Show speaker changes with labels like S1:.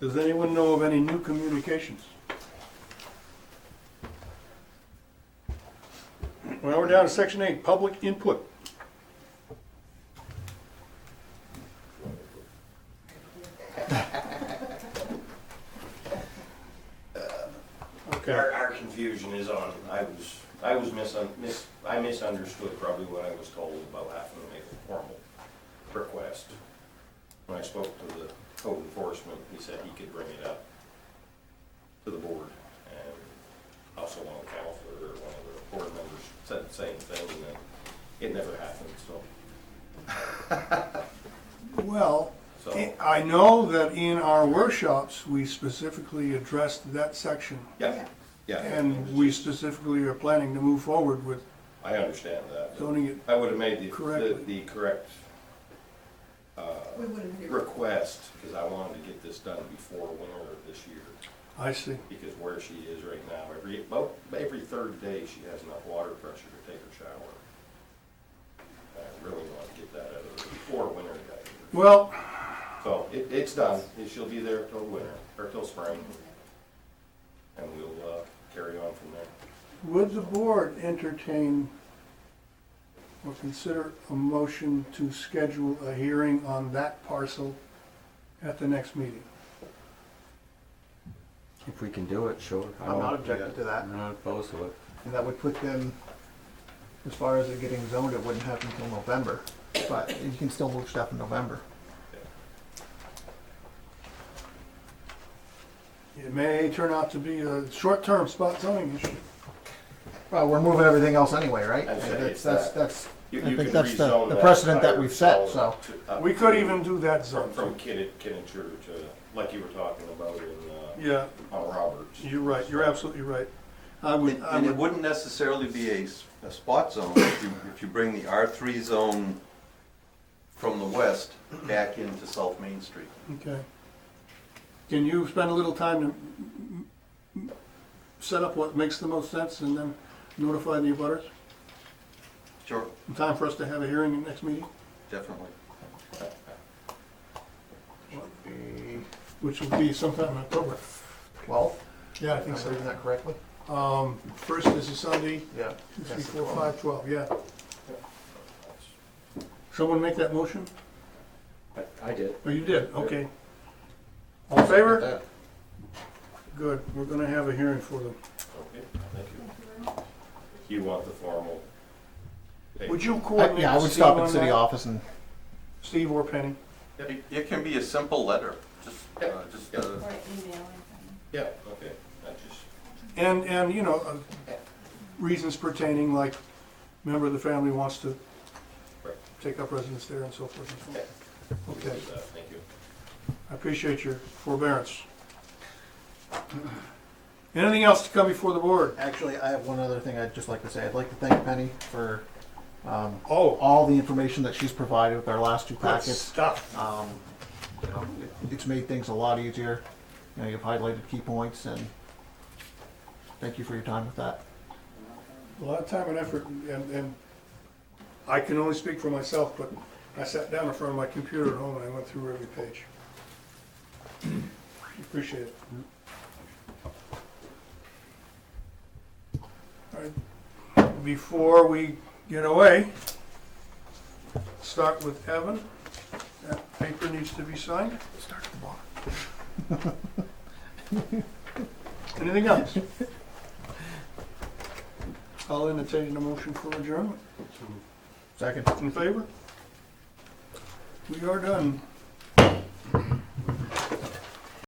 S1: Does anyone know of any new communications? Well, we're down to section eight, public input. Okay,
S2: Our, our confusion is on, I was, I was misun, mis, I misunderstood probably what I was told about having to make a formal request. When I spoke to the code enforcement, he said he could bring it up to the board. And also one of the counselor or one of the board members said the same thing, and then it never happened, so.
S1: well,
S2: So-
S1: I know that in our workshops, we specifically addressed that section.
S2: Yeah, yeah.
S1: And we specifically are planning to move forward with
S2: I understand that. but
S1: zoning it
S2: I would have made the, the-
S1: Correctly.
S2: the correct
S3: We would have agreed.
S2: request, because I wanted to get this done before winter of this year,
S1: I see.
S2: because where she is right now, every, about every third day, she has enough water pressure to take her shower. I really want to get that out of her before winter got here.
S1: Well,
S2: So it, it's done, and she'll be there till winter, or till spring, and we'll, uh, carry on from there.
S1: would the board entertain or consider a motion to schedule a hearing on that parcel at the next meeting?
S4: If we can do it, sure. I
S5: I'm not
S4: won't-
S5: objecting to that,
S4: I'm not opposed to it.
S5: and that would put them, as far as it getting zoned, it wouldn't happen until November. But you can still move stuff in November.
S1: It may turn out to be a short-term spot zoning issue.
S5: Well, we're moving everything else anyway, right?
S2: I'd say
S5: And
S2: it's
S5: That's, that's,
S2: that.
S5: that's,
S2: You-
S5: I
S2: you
S5: think
S2: can
S5: that's the,
S2: rezone
S5: the precedent that
S2: entire
S5: we've set,
S2: zone
S5: so.
S2: to- up
S1: We could even do that
S2: From, from
S1: zone.
S2: Kinnit, Kinnature to, uh, like you were talking about in, uh,
S1: Yeah,
S2: on Roberts.
S1: you're right, you're absolutely right. I would,
S6: And
S1: I
S6: and it
S1: would,
S6: wouldn't necessarily be a, s- a spot zone if you, if you bring the R3 zone from the west back into South Main Street.
S1: okay. Can you spend a little time to m- m- set up what makes the most sense and then notify the abutters?
S6: Sure.
S1: In time for us to have a hearing in the next meeting?
S6: Definitely.
S1: Which will be sometime in October.
S5: Twelve,
S1: Yeah, I
S5: am
S1: think
S5: I
S1: so.
S5: reading that correctly?
S1: Um, first is a Sunday,
S5: Yeah.
S1: two, three,
S5: That's the
S1: four,
S5: 12.
S1: five, twelve, yeah. Someone make that motion?
S4: I did.
S1: Oh, you did, okay. All in favor?
S4: That.
S1: Good, we're gonna have a hearing for them.
S2: Okay, thank you. You want the formal?
S1: Would you
S5: I-
S1: coordinate
S5: Yeah, I
S1: with
S5: would
S1: Steve
S5: stop at
S1: on
S5: city
S1: that?
S5: office and,
S1: Steve or Penny?
S6: It, it can be a simple letter, just, uh, just, uh,
S3: Or email or
S2: Yeah, okay, I just,
S1: And, and, you know, uh, reasons pertaining, like, member of the family wants to
S2: Right.
S1: take up residence there and so forth and so
S2: yeah,
S1: on. Okay.
S2: uh, thank you.
S1: I appreciate your forbearance. Anything else to come before the board?
S5: actually, I have one other thing I'd just like to say. I'd like to thank Penny for, um,
S1: Oh,
S5: all the information that she's provided with our last two
S1: good
S5: packets.
S1: stuff.
S5: Um, you know, it- it's made things a lot easier. You know, you've highlighted key points and thank you for your time with that.
S1: A lot of time and effort, and, and I can only speak for myself, but I sat down in front of my computer at home and I went through every page. Appreciate it. All right, before we get away, start with Evan. That paper needs to be signed.
S5: Start at the bottom.
S1: Anything else? I'll entertain a motion for adjournment.
S5: Second.
S1: In favor? We are done.